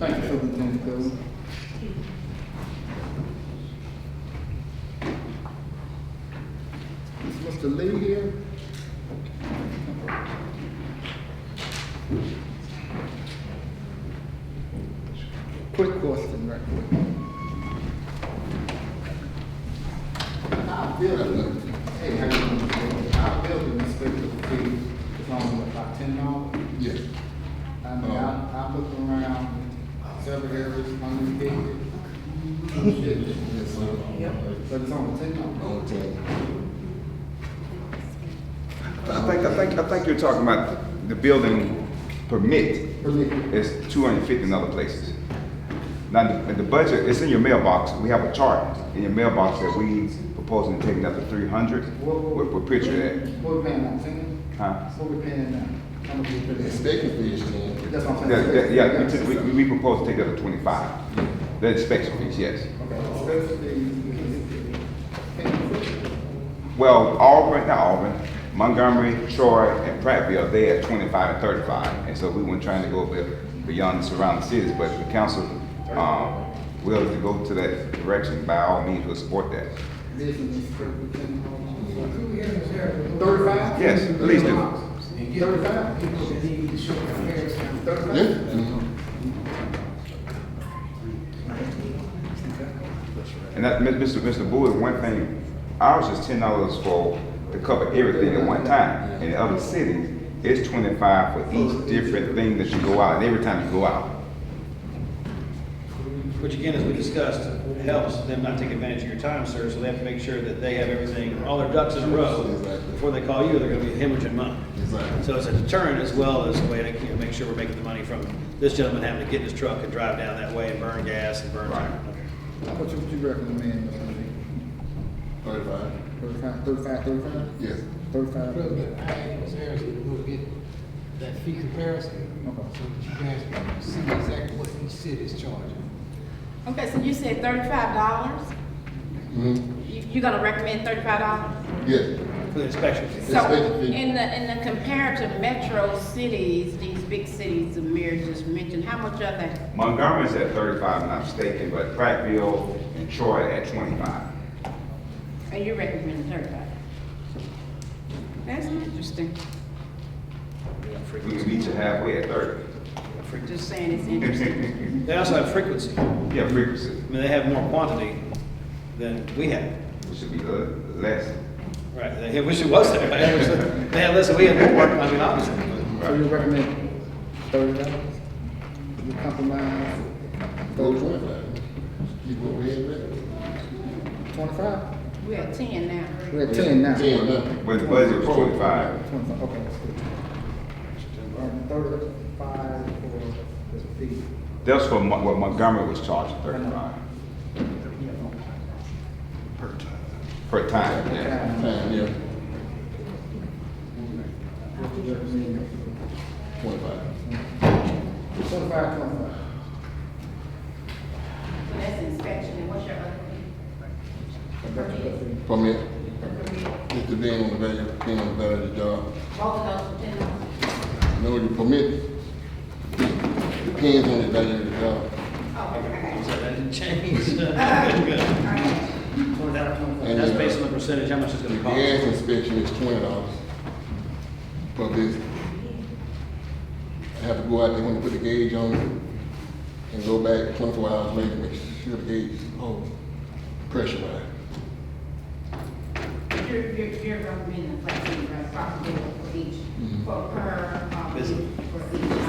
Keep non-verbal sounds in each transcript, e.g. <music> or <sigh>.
everything through. Is Mr. Lee here? Quick question, right quick. Our building, hey, how you doing? Our building inspector fee is only about ten dollars. Yes. I mean, I, I look around several areas, hundred fifty. Shit, <laughs> Yes, sir. But it's only ten dollars. On ten. I think, I think, I think you're talking about the building permit Believe me. is two hundred and fifty in other places. Now, the, the budget, it's in your mailbox, we have a chart in your mailbox that we proposing to take another three hundred. What- what- With, with picture What we paying now, ten? that, huh? What we paying now? How much we The paying? inspection fee is ten. That's what I'm That- saying. that- yeah, we took- we, we, we propose to take that to twenty-five. The inspection fees, yes. Okay, inspection fees. Can you fix it? Well, Auburn, not Auburn, Montgomery, Troy, and Prattville, they at twenty-five and thirty-five. And so we weren't trying to go be- beyond the surrounding cities, but the council, um, willing to go to that direction, by all means, we'll support that. This is inspector ten dollars. Thirty-five? Yes, please do. Thirty-five? Thirty-five? Yes. Mhm. And that, Mr. Mr. Bowie, one thing, ours is ten dollars for, to cover everything at one time. In other cities, it's twenty-five for each different thing that you go out, and every time you go out. Which again, as we discussed, helps them not take advantage of your time, sir, so they have to make sure that they have everything, all their ducks in a row. Exactly. Before they call you, they're gonna be hemorrhaging money. Exactly. So it's a deterrent as well as a way to, you know, make sure we're making the money from this gentleman having to get in his truck and drive down that way and burn gas and burn tire. How much would you recommend, Mr. Lee? Thirty-five. Thirty-five, thirty-five, thirty-five? Yes. Thirty-five? President, I asked Ms. Harris if we'll get that fee comparison, Okay. so that you guys can see exactly what each city is charging. Okay, so you said thirty-five dollars? Mhm. You, you're gonna recommend thirty-five dollars? Yes. For the inspection fee. So, $35. in the, in the comparative metro cities, these big cities the mayor just mentioned, how much are they? Montgomery's at thirty-five, if I'm not mistaken, but Prattville and Troy are at twenty-five. And you recommend thirty-five? That's interesting, We can meet you halfway at thirty. just saying it's interesting. They also have frequency. I Yeah, frequency, mean, they have more quantity than we have. which should be the less. Right, they wish it was there, I wish that- <laughs> they had less, we had more, I mean, obviously. So you recommend thirty dollars? You compromise Go to thirty-one, twenty-five. Keep what we had there. twenty-five? We're at ten now. We're at ten now. Ten, nothing. When the budget was twenty-five, Twenty-five, okay, that's good. Um, thirty-five for this fee. that's what Mon- what Montgomery was charging, thirty-five. Per time. Per time, yeah. Time, yeah. Twenty-five. Twenty-five, twenty-five. So that's inspection, and what's your other fee? Permit. Permit. It's the being on the value, being on the value of the job. Both of those are ten dollars? No, you permit. Depends on the value of the job. Oh, okay. So that didn't change. <laughs> Good. All right. And, That's uh, based on the percentage, how much it's The gonna cost. gas inspection is twenty dollars for this. I have to go out there when they put the gauge on and go back twenty-four hours later, and make sure the gauge is hold pressurized. You're, you're, you're recommending flat fee, right, approximately for each, for per, um, for each. Visit.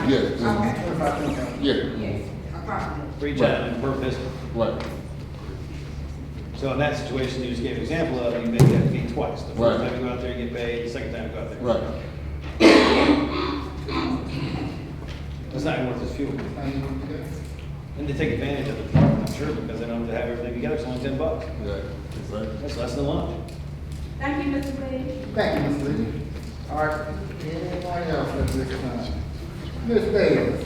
Yes. Okay. Yeah, Yes, approximately. Reach out and per visit. right, So in that situation, you just gave an example of, you make that fee twice. The first Right. time you go out there, you get paid, the second time you go out there. right. That's not even worth its fuel. Twenty-five. And they take advantage of it, I'm sure, because they don't have to have everything together, it's only ten bucks. Yeah, exactly. That's less than lunch. Thank you, Mr. Lee. Thank you, Ms. Lee. All right, anyone else at this time? Ms. Bailey?